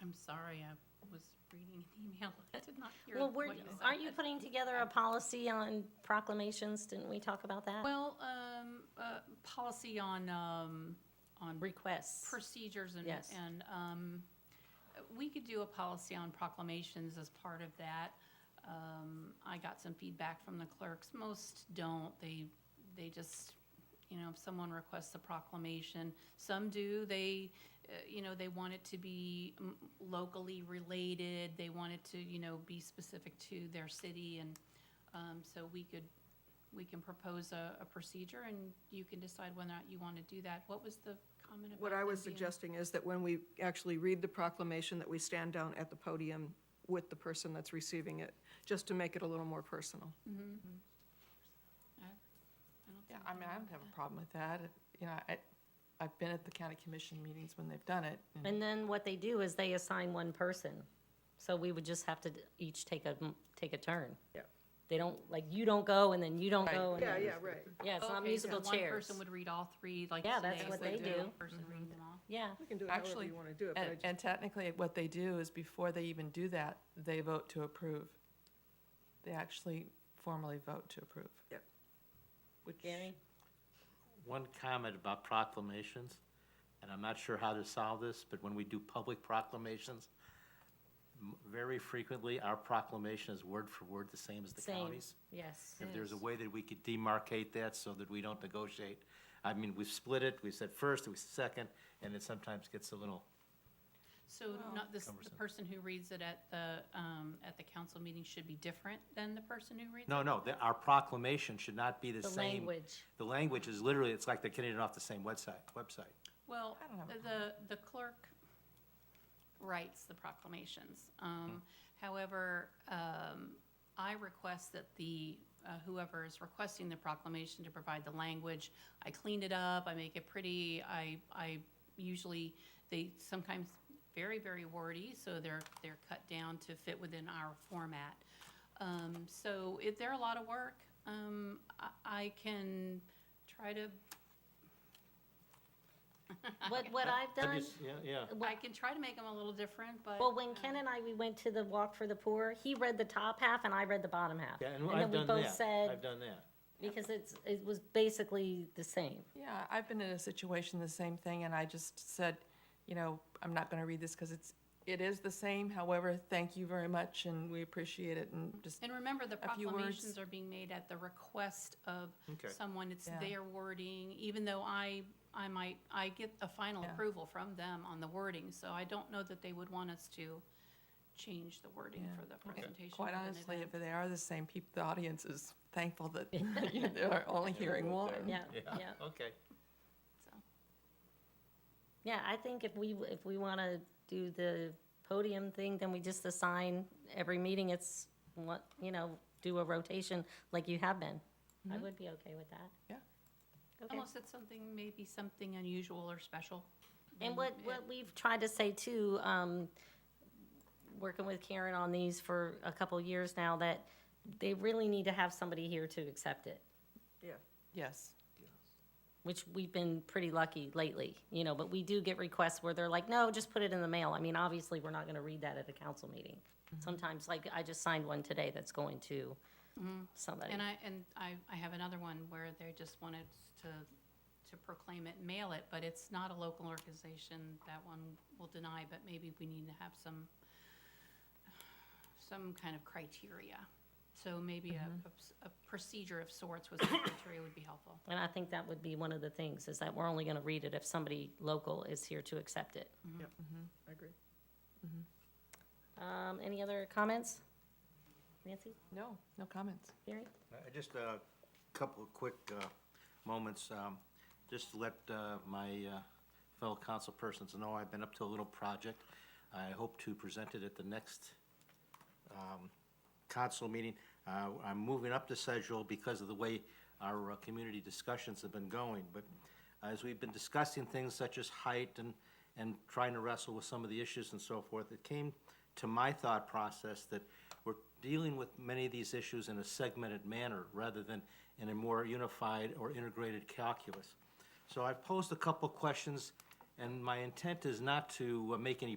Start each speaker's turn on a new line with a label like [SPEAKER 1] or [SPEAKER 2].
[SPEAKER 1] I'm sorry, I was reading an email. I did not hear
[SPEAKER 2] Well, we're,
[SPEAKER 1] what you said.
[SPEAKER 2] aren't you putting together a policy on proclamations? Didn't we talk about that?
[SPEAKER 1] Well, um, uh, policy on, um, on
[SPEAKER 2] Requests.
[SPEAKER 1] procedures and,
[SPEAKER 2] Yes.
[SPEAKER 1] and, um, we could do a policy on proclamations as part of that. Um, I got some feedback from the clerks. Most don't. They, they just, you know, if someone requests a proclamation, some do, they, uh, you know, they want it to be mm, locally related. They want it to, you know, be specific to their city and, um, so we could, we can propose a, a procedure and you can decide whether or not you want to do that. What was the comment about?
[SPEAKER 3] What I
[SPEAKER 1] there
[SPEAKER 3] was
[SPEAKER 1] being-
[SPEAKER 3] suggesting is that when we actually read the proclamation, that we stand down at the podium with the person that's receiving it, just to make it a little more personal.
[SPEAKER 1] I don't
[SPEAKER 4] Yeah,
[SPEAKER 1] think
[SPEAKER 4] I mean, I don't have a problem with that. It- You know, I, I've been at the county commission meetings when they've done it. and-
[SPEAKER 2] And then what they do is they assign one person. So we would just have to d- each take a, m- take a turn.
[SPEAKER 3] Yeah.
[SPEAKER 2] They don't, like, you don't go and then you don't
[SPEAKER 4] Right.
[SPEAKER 2] go and
[SPEAKER 3] Yeah,
[SPEAKER 2] then,
[SPEAKER 3] yeah, right.
[SPEAKER 2] yeah, it's
[SPEAKER 1] Okay,
[SPEAKER 2] not
[SPEAKER 1] so
[SPEAKER 2] musical
[SPEAKER 1] One
[SPEAKER 2] chairs.
[SPEAKER 1] person would read all three, like
[SPEAKER 2] Yeah, that's
[SPEAKER 1] today,
[SPEAKER 2] what
[SPEAKER 1] they
[SPEAKER 2] they
[SPEAKER 1] do.
[SPEAKER 2] do.
[SPEAKER 1] One Person read them all.
[SPEAKER 2] Yeah,
[SPEAKER 3] We can do it however
[SPEAKER 4] Actually,
[SPEAKER 3] you want to do it, but I
[SPEAKER 4] And,
[SPEAKER 3] just-
[SPEAKER 4] and technically, what they do is before they even do that, they vote to approve. They actually formally vote to approve.
[SPEAKER 3] Yep.
[SPEAKER 4] Which,
[SPEAKER 2] Gary?
[SPEAKER 5] One comment about proclamations, and I'm not sure how to solve this, but when we do public proclamations, m- very frequently, our proclamation is word for word the same as the
[SPEAKER 2] same,
[SPEAKER 5] county's.
[SPEAKER 2] yes.
[SPEAKER 5] If there's a way that we could demarcate that so that we don't negotiate, I mean, we've split it, we said first, we said second, and it sometimes gets a little,
[SPEAKER 1] So
[SPEAKER 3] Oh.
[SPEAKER 1] not this, the
[SPEAKER 5] Cumbersome.
[SPEAKER 1] person who reads it at the, um, at the council meeting should be different than the person who reads it?
[SPEAKER 5] no, no, the- our proclamation should not be the
[SPEAKER 2] The
[SPEAKER 5] same.
[SPEAKER 2] language.
[SPEAKER 5] The language is literally, it's like they're getting it off the same website, website.
[SPEAKER 1] Well,
[SPEAKER 4] I don't have a
[SPEAKER 1] the, the clerk writes the proclamations. Um,
[SPEAKER 4] Hmm.
[SPEAKER 1] However, um, I request that the, uh, whoever is requesting the proclamation to provide the language, I clean it up, I make it pretty, I, I usually, they sometimes very, very wordy, so they're, they're cut down to fit within our format. Um, So if they're a lot of work, um, I, I can try to
[SPEAKER 2] What, what I've
[SPEAKER 5] Have
[SPEAKER 2] done,
[SPEAKER 5] you s- Yeah, yeah.
[SPEAKER 1] I can try to make them a little different, but.
[SPEAKER 2] well, when Ken and I, we went to the Walk for the Poor, he read the top half and I read the bottom half.
[SPEAKER 5] Yeah, and I've done
[SPEAKER 2] then we both
[SPEAKER 5] that.
[SPEAKER 2] said,
[SPEAKER 5] I've done that.
[SPEAKER 2] because it's, it was basically the same.
[SPEAKER 4] yeah, I've been in a situation, the same thing, and I just said, you know, I'm not gonna read this because it's, it is the same. However, thank you very much and we appreciate it and just,
[SPEAKER 1] And remember, the
[SPEAKER 4] A few words.
[SPEAKER 1] proclamations are being made at the request of
[SPEAKER 5] Okay.
[SPEAKER 1] someone, it's
[SPEAKER 4] Yeah.
[SPEAKER 1] their wording, even though I, I might, I get a final
[SPEAKER 4] Yeah.
[SPEAKER 1] approval from them on the wording, so I don't know that they would want us to change the wording
[SPEAKER 4] Yeah.
[SPEAKER 1] for the presentation.
[SPEAKER 4] eh, quite
[SPEAKER 1] of an
[SPEAKER 4] honestly,
[SPEAKER 1] event.
[SPEAKER 4] if they are the same people, the audience is thankful that you know, they're only hearing one.
[SPEAKER 2] Yeah, yeah.
[SPEAKER 5] Okay.
[SPEAKER 2] Yeah, I think if we, if we want to do the podium thing, then we just assign every meeting, it's what, you know, do a rotation like you have been. I would be okay with that.
[SPEAKER 4] Yeah.
[SPEAKER 2] Okay.
[SPEAKER 1] Unless it's something, maybe something unusual or special.
[SPEAKER 2] And what, what we've tried to say too, um, working with Karen on these for a couple of years now, that they really need to have somebody here to accept it,
[SPEAKER 3] yeah.
[SPEAKER 4] Yes.
[SPEAKER 2] which we've been pretty lucky lately, you know, but we do get requests where they're like, no, just put it in the mail. I mean, obviously, we're not gonna read that at a council meeting.
[SPEAKER 1] Mm-hmm.
[SPEAKER 2] Sometimes, like, I just signed one today that's going to somebody.
[SPEAKER 1] Mm-hmm. And I, and I, I have another one where they just wanted to, to proclaim it, and mail it, but it's not a local organization, that one will deny, but maybe we need to have some, some kind of criteria. So maybe a, a s- a procedure of sorts with some criteria would be helpful.
[SPEAKER 2] And I think that would be one of the things, is that we're only gonna read it if somebody local is here to accept it.
[SPEAKER 3] Mm-hmm. I agree.
[SPEAKER 1] Mm.
[SPEAKER 2] Um, any other comments? Nancy,
[SPEAKER 4] No, no comments.
[SPEAKER 2] Gary?
[SPEAKER 5] Uh, Just a couple of quick uh, moments, um, just to let uh, my uh, fellow council persons know I've been up to a little project. I hope to present it at the next um, council meeting. Uh, I'm moving up the schedule because of the way our uh, community discussions have been going. But as we've been discussing things such as height and, and trying to wrestle with some of the issues and so forth, it came to my thought process that we're dealing with many of these issues in a segmented manner rather than in a more unified or integrated calculus. So I've posed a couple questions, and my intent is not to uh, make any